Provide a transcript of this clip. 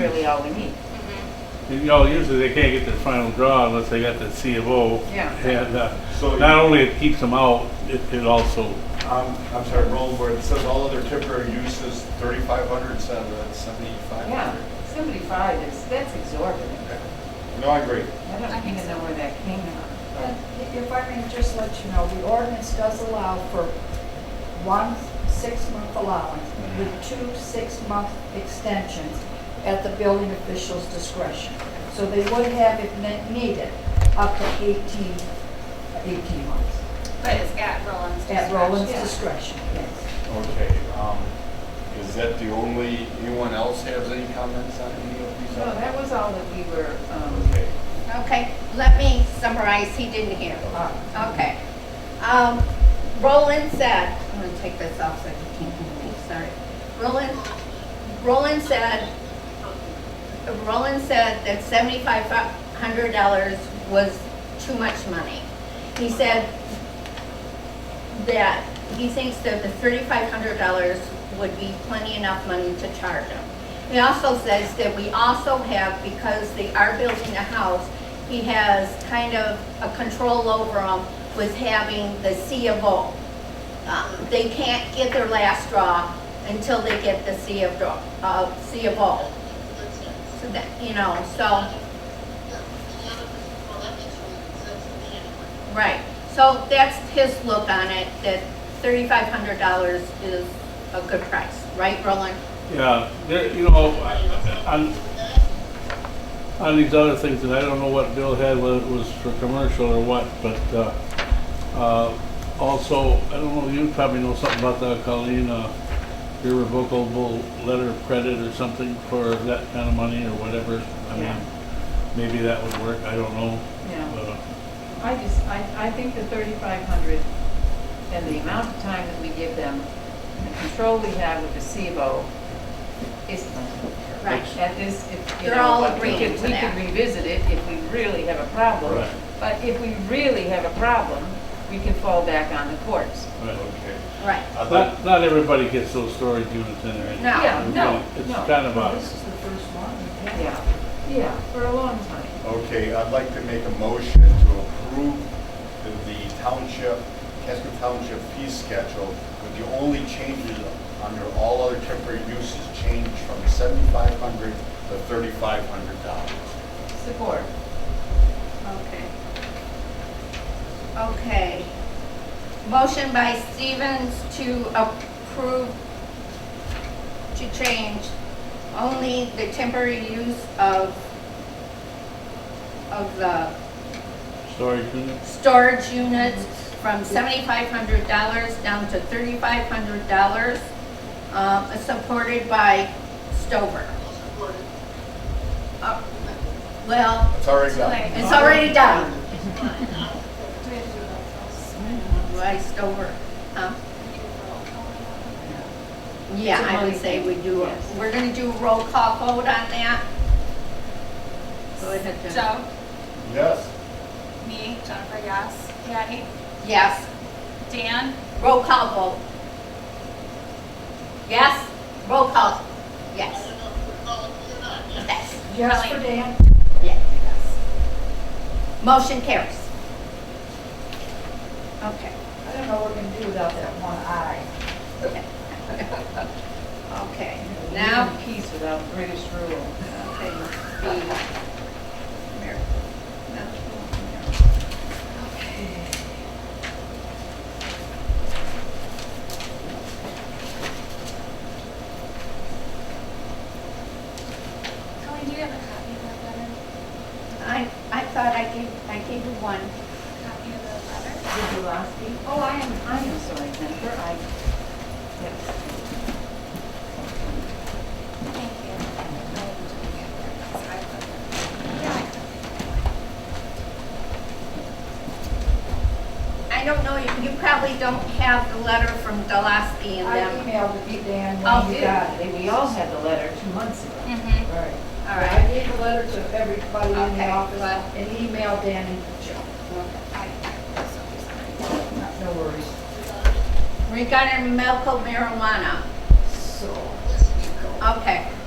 really all we need. You know, usually they can't get their final draw unless they got the C of O. Yeah. And, uh, So- not only it keeps them out, it, it also, I'm, I'm sorry, Roland, where it says all other temporary uses, thirty-five hundred, so that's seventy-five Yeah, hundred. seventy-five is, that's exorbitant. No, I agree. I don't even know where that came from. But If I may just let you know, the ordinance does allow for one six-month allowance with two six-month extensions at the building official's discretion. So they would have, if ne- needed, up to 18, 18 months But it's at Roland's at discretion. Roland's Yeah. discretion, yes. Okay, um, is that the only, anyone else has any comments on any of these? So that was all that we were, um, Okay, Okay, let me summarize, he didn't hear. All right. Okay. Um, Roland said, I'm gonna take this off so you can't hear me, sorry. Roland, Roland said, Roland said that seventy-five hundred dollars was too much money. He said that he thinks that the thirty-five hundred dollars would be plenty enough money to charge him. He also says that we also have, because they are building a house, he has kind of a control over them with having the C of O. Um, They can't get their last draw until they get the C of, draw- uh, C of O. So that, you know, so, right. So that's his look on it, that thirty-five hundred dollars is a good price, right, Roland? yeah, there, you know, I- on, on these other things, and I don't know what Bill had, whether it was for commercial or what, but, uh, uh, also, I don't know, you probably know something about the Colleen, uh, irrevocable letter of credit or something for that kind of money or whatever. I mean, Yeah. maybe that would work, I don't know. Yeah. But, uh, I just, I, I think the thirty-five hundred and the amount of time that we give them, the control we have with the CBO is plenty. Right. At this, if, you They're know, all but we agreeing could, to we could that. revisit it if we really have a problem. Right. But if we really have a problem, we can fall back on the courts. right. okay. Right. I thought, Not, not everybody gets those storage units in there. No. Yeah, no, It's no. kind of Uh, This a, is the first one we've had. Yeah, yeah, for a long time. okay, I'd like to make a motion to approve the the township, Casco Township fee schedule with the only changes under all other temporary uses changed from seventy-five hundred to thirty-five hundred dollars. Support. Okay. Okay. Motion by Stevens to approve, to change only the temporary use of, of the storage unit. storage units from seventy-five hundred dollars down to thirty-five hundred dollars, um, supported by Stover. Uh, Well, It's already done. it's already done. By Stover, huh? Yeah, I would say we do, a- we're gonna do a roll call vote on that. Go ahead, Jen. Joe, Yes? me, Jennifer, yes. Patty, Yes, Dan, roll call vote. Yes, roll call, yes. Yes, Yes for Really? Dan? yes. Motion carries. Okay. I don't know what we're gonna do without that one eye. Okay, now Even Peace without British rule. Okay, B. America. Okay. Colleen, do you have a copy of that letter? I, I thought I gave, I gave you one. Copy of the letter? Did you last week? Oh, I am, I am sorry, Jennifer, I, yes. Thank you. I don't know, you you probably don't have the letter from Delasky and I them. emailed it to Dan Oh, when We he did got it. got it. We all had the letter two months ago. Mm-hmm. Right. All I right. gave the letter to everybody in the Okay, office well- and emailed Dan and Joe. No worries. Regarding medical marijuana, So, okay.